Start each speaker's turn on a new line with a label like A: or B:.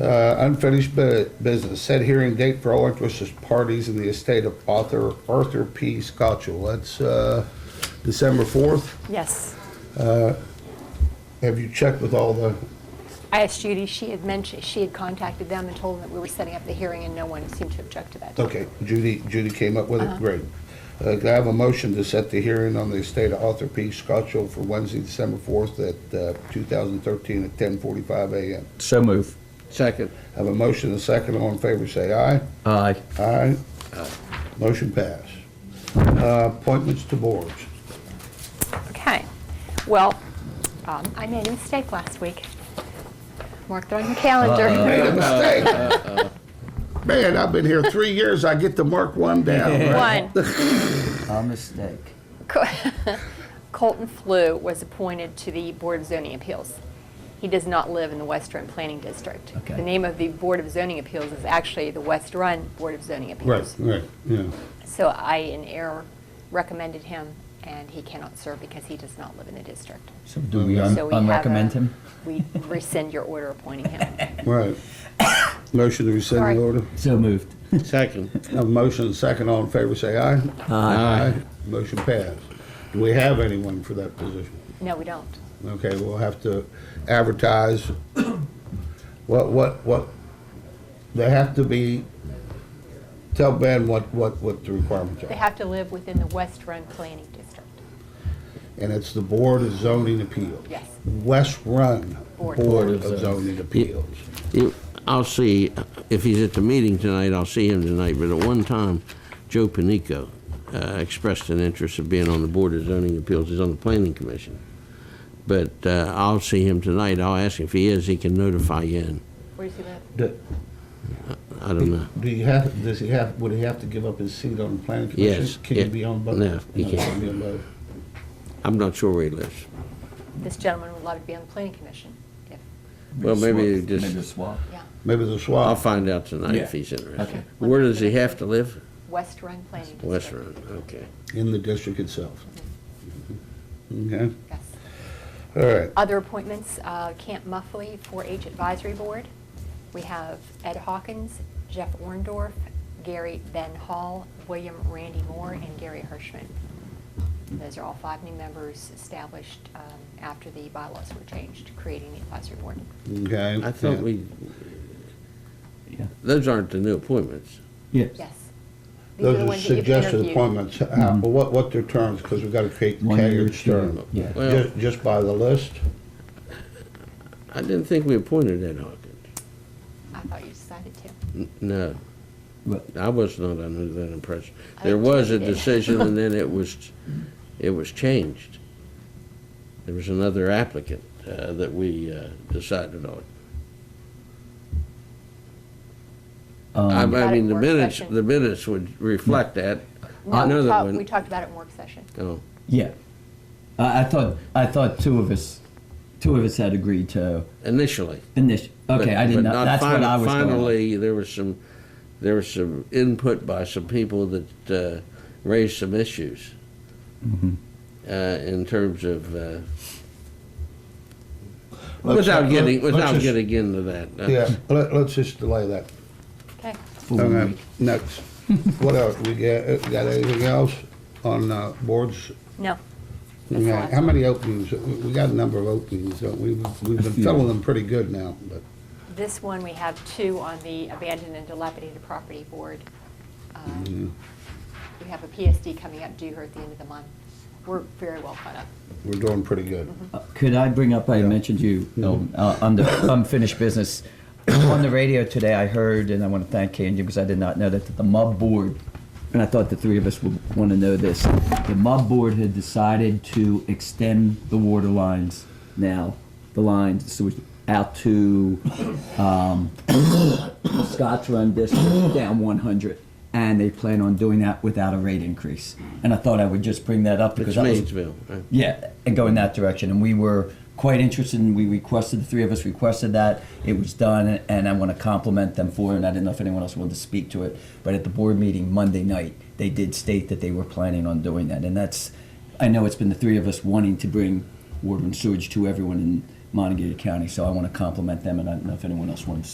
A: Uh, Unfinished bu- business, set hearing date for all interested parties in the estate of author Arthur P. Scotchell. That's uh, December 4th.
B: Yes.
A: Have you checked with all the,
B: I asked Judy, she had mentioned, she had contacted them and told them that we were setting up the hearing, and no one seemed to object to that.
A: okay, Judy, Judy came up with it, great. Uh, Can I have a motion to set the hearing on the estate of Arthur P. Scotchell for Wednesday, December 4th at uh, 2013 at 10:45 a.m.?
C: So move.
D: Second.
A: Have a motion, and a second, all in favor, say aye.
C: Aye.
A: Aye. Motion pass. Uh, Appointments to boards.
B: Okay. Well, um, I made a mistake last week. Marked it on your calendar.
A: Made a mistake. Man, I've been here three years, I get to mark one down. right?
B: One,
D: A mistake.
B: Colton Flew was appointed to the Board of Zoning Appeals. He does not live in the West Run Planning District.
D: Okay.
B: The name of the Board of Zoning Appeals is actually the West Run Board of Zoning Appeals.
A: Right, right, yeah.
B: So I, in error, recommended him, and he cannot serve because he does not live in the district.
C: So do we
B: So we have a-
C: unrecommend him?
B: We rescind your order appointing him.
A: Right. Motion to rescind
B: Sorry.
A: the order.
C: So moved.
D: Second.
A: Have a motion, and a second, all in favor, say aye. Motion pass. Do we have anyone for that position?
B: No, we don't.
A: Okay, we'll have to advertise. What, what, what, they have to be, tell Ben what, what, what the requirements
B: They
A: are.
B: have to live within the West Run Planning District.
A: And it's the Board of Zoning Appeals.
B: Yes.
A: West Run
B: Board.
A: Board of Zoning Appeals.
E: You- I'll see, if he's at the meeting tonight, I'll see him tonight, but at one time, Joe Panico uh, expressed an interest of being on the Board of Zoning Appeals, he's on the Planning Commission. But uh, I'll see him tonight, I'll ask if he is, he can notify you, and
B: Where does he live?
A: Do
E: I don't know.
A: do you have, does he have, would he have to give up his seat on the planning commission?
E: Yes,
A: Can he
E: yeah.
A: be on both?
E: No, he can't.
A: be on both.
E: I'm not sure where he lives.
B: This gentleman would love to be on the Planning Commission, if,
E: Well, maybe
C: swap-
E: just-
C: Maybe a swap.
B: yeah,
A: Maybe the
E: I'll
A: swap.
E: find out tonight if
C: Yeah.
E: he's interested.
C: Okay.
E: Where does he have to live?
B: West Run Planning District.
E: West Run, okay.
A: in the district itself. Okay,
B: Yes.
A: all right.
B: Other appointments, uh, Camp Muffley, 4-H Advisory Board. We have Ed Hawkins, Jeff Orndorff, Gary Ben Hall, William Randy Moore, and Gary Hirschman. Those are all five new members established um, after the bylaws were changed, creating the advisory board.
A: Okay.
E: I thought we,
C: Yeah.
E: those aren't the new appointments.
C: Yes.
B: Yes. These the
A: Those are
B: ones that you've
A: suggested
B: interviewed.
A: appointments, How-
E: Mm-hmm.
A: what, what their terms, because we've got to create
C: One year,
A: tenured
C: two year.
A: term.
C: Yeah.
E: Well-
A: Ju- Just by the list?
E: I didn't think we appointed Ed Hawkins.
B: I thought you decided to.
E: N- No.
C: Well-
E: I was not under that impression.
B: I
E: There
B: think
E: was
B: you
E: a
B: did.
E: decision and then it was, it was changed. There was another applicant uh, that we uh, decided on. I
C: Um,
E: I mean, the
B: Work
E: minutes,
B: session.
E: the minutes would reflect that.
B: No, we
E: Another
B: talked-
E: one.
B: We talked about it in work session.
E: Oh,
C: Yeah. I, I thought, I thought two of us, two of us had agreed to
E: initially.
C: initial,
E: but-
C: okay, I
E: but
C: didn't know, that's
E: fin-
C: what I was going on.
E: Finally, there was some, there was some input by some people that uh, raised some issues
C: Mm-hmm.
E: uh, in terms of, uh,
A: Let's-
E: without
A: let-
E: getting,
A: let's
E: without
A: just-
E: getting into that. uh,
A: Yeah, let, let's just delay that.
B: Okay.
C: Full
A: Okay,
C: week.
A: Next. What else? We got, uh, got anything else on uh, boards?
B: No. That's the
A: Okay,
B: last
A: How
B: one.
A: many openings? We we got a number of openings, don't we? We've we've been
C: few.
A: filling them pretty good now, but.
B: This one, we have two on the abandoned and dilapidated property board. Um, We have a PSD coming up due here at the end of the month. We're very well caught up.
A: We're doing pretty good.
C: Could I bring up, I mentioned you, Elton, uh, on the unfinished business. On the radio today, I heard, and I want to thank Kay and Jim because I did not know that the MUB board, and I thought the three of us would want to know this. The MUB board had decided to extend the water lines now, the lines, so out to um, Scotts Run District down 100. And they plan on doing that without a rate increase. And I thought I would just bring that up because
E: It's
C: that was
E: Maysville. right?
C: yeah, and go in that direction. And we were quite interested, and we requested, the three of us requested that. It was done, and I want to compliment them for it, and I didn't know if anyone else wanted to speak to it. But at the board meeting Monday night, they did state that they were planning on doing that. And that's, I know it's been the three of us wanting to bring water and sewage to everyone in Montague County, so I want to compliment them, and I don't know if anyone else wanted to